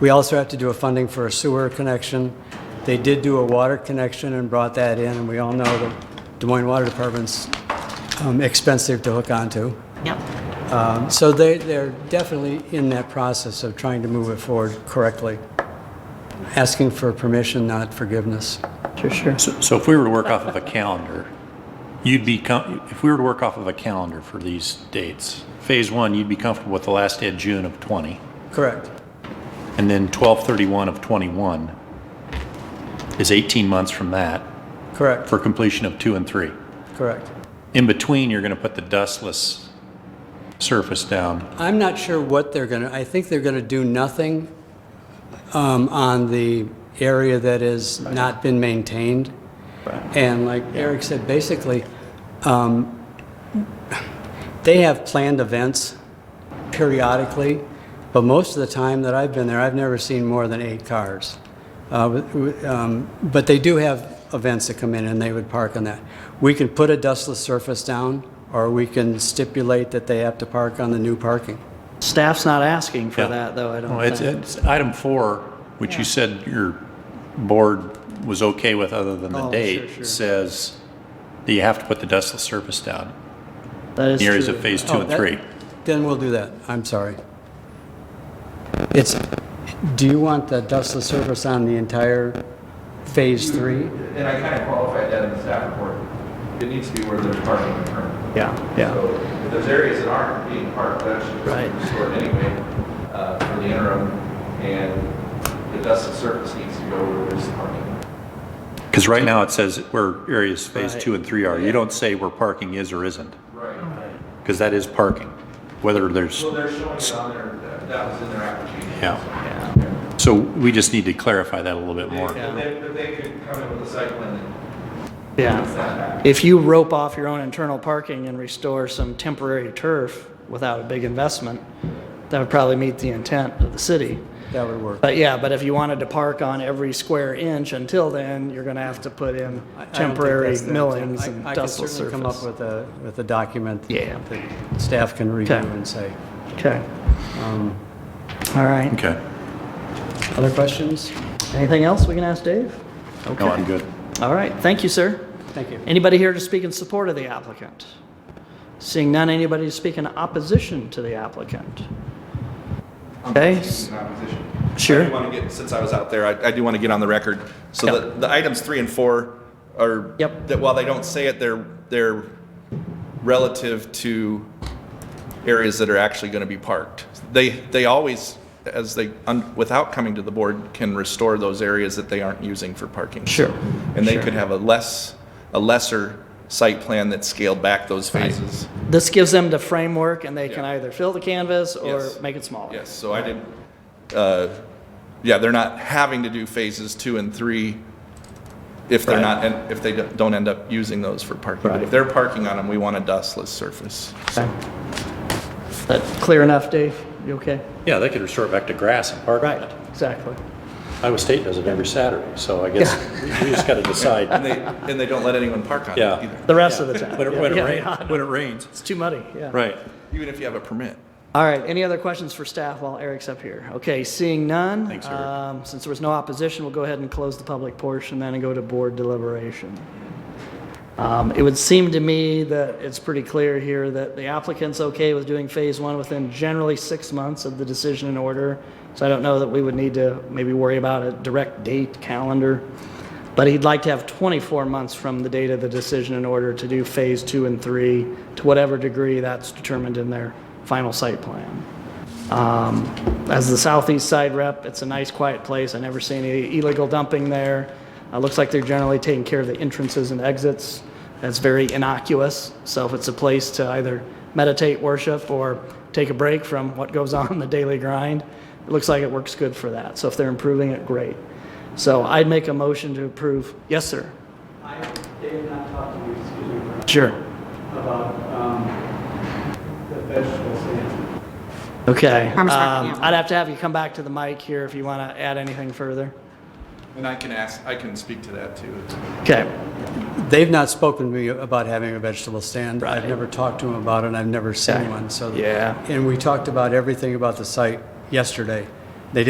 We also have to do a funding for a sewer connection. They did do a water connection and brought that in, and we all know the Des Moines Water Department's um, expensive to hook onto. Yep. Um, So they, they're definitely in that process of trying to move it forward correctly, asking for permission, not forgiveness. Sure, sure. So so if we were to work off of a calendar, you'd be, com- if we were to work off of a calendar for these dates, phase one, you'd be comfortable with the last day of June of 20, Correct. and then 12/31 of 21 is 18 months from that Correct. for completion of two and three. Correct. In between, you're going to put the dustless surface down. I'm not sure what they're going to, I think they're going to do nothing um, on the area that has not been maintained. And like Eric said, basically, um, they have planned events periodically, but most of the time that I've been there, I've never seen more than eight cars. Uh, with- with, um, But they do have events that come in, and they would park on that. We can put a dustless surface down, or we can stipulate that they have to park on the new parking. Staff's not asking for Yeah. that, though, I Oh, Well, don't It's, think. it's item four, which you said your board was okay with other than the Oh, sure, sure. date, says that you have to put the dustless surface down. That is the areas true. of phase two Oh, and that- three. Then we'll do that. I'm sorry. It's, do you want the dustless surface on the entire phase three? And I kind of qualified that in the staff report. It needs to be where there's parking and turn. Yeah, yeah. So if there's areas that aren't being parked, that should Right. be restored anyway uh, for the interim. And the dust and surface needs to go where there's parking. Because right now it says where areas phase Right. two and three are. You don't say where parking is or isn't, Right. because that is parking, whether there's, So they're showing it on there, that- that was in their application. yeah. Yeah. So we just need to clarify that a little bit They- more. But they, but they could come in with a site plan and fix Yeah. that back. If you rope off your own internal parking and restore some temporary turf without a big investment, that would probably meet the intent of the city. That would work. But yeah, but if you wanted to park on every square inch until then, you're gonna have to put I- in I don't think temporary that's the intent. millings I- and I can dustless certainly come up surface. with a, with a document Yeah. that staff can review Okay. and say. Okay. Um, All right. Okay. Other questions? Anything else we can ask Dave? No, I'm good. All right, thank you, sir. Thank you. Anybody here to speak in support of the applicant? Seeing none, anybody to speak in opposition to the applicant? Okay, In opposition. Sure. I do want to get, since I was out there, I, I do want to get on the record. So Yep. the, the items three and four are. Yep. That while they don't say it, they're, they're relative to areas that are actually going to be parked. They, they always, as they, un- without coming to the board, can restore those areas that they aren't using for parking. Sure, And they sure. could have a less, a lesser site plan that scaled back those phases. this gives them the framework and they can Yeah. either fill the canvas or Yes. make it smaller. Yes, so I didn't, uh, yeah, they're not having to do phases two and three if they're not, and if they don't end up using those for parking. But if they're parking on them, we want a dustless surface. Okay. That clear enough, Dave? You okay? Yeah, they could restore it back to grass and park. Right, exactly. Iowa State does it every Saturday, so I guess we just got to And decide. they, and they don't let anyone park on it Yeah. either, The rest of the time. When it, Yeah, when it yeah, rains, when it rains. It's too muddy, yeah. Right. even if you have a permit. All right, any other questions for staff while Eric's up here? Okay, seeing none. Thanks, Eric. um, Since there was no opposition, we'll go ahead and close the public portion then and go to board deliberation. Um, It would seem to me that it's pretty clear here that the applicant's okay with doing phase one within generally six months of the decision in order. So I don't know that we would need to maybe worry about a direct date calendar. But he'd like to have 24 months from the date of the decision in order to do phase two and three to whatever degree that's determined in their final site plan. Um, As the southeast side rep, it's a nice, quiet place. I never see any illegal dumping there. It looks like they're generally taking care of the entrances and exits. That's very innocuous. So if it's a place to either meditate, worship, or take a break from what goes on in the daily grind, it looks like it works good for that. So if they're improving it, great. So I'd make a motion to approve. Yes, sir. I, Dave, not talking to you, excuse me, for- Sure. about um, the vegetable stand. Okay. Farmers market, Um, yeah. I'd have to have you come back to the mic here if you want to add anything further. And I can ask, I can speak to that too. Okay. They've not spoken to me about having a vegetable stand. I've Right. never talked to them about it, and I've never seen Okay. one, so. Yeah. And we talked about everything about the site yesterday.